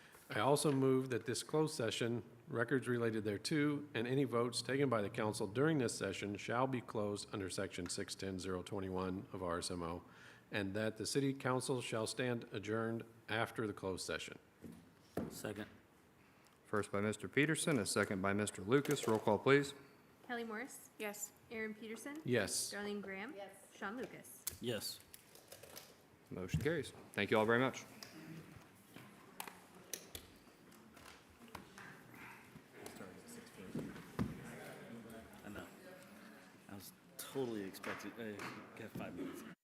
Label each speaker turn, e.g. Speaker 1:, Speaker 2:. Speaker 1: I also move that this closed session, records related thereto, and any votes taken by the council during this session shall be closed under section 610-021 of RSMO, and that the city council shall stand adjourned after the closed session.
Speaker 2: Second.
Speaker 3: First by Mr. Peterson, a second by Mr. Lucas. Roll call, please.
Speaker 4: Kelly Morris. Yes. Aaron Peterson.
Speaker 1: Yes.
Speaker 4: Darlene Graham. Yes. Sean Lucas.
Speaker 2: Yes.
Speaker 3: Motion carries. Thank you all very much.
Speaker 2: I know. I was totally expecting, uh, got five minutes.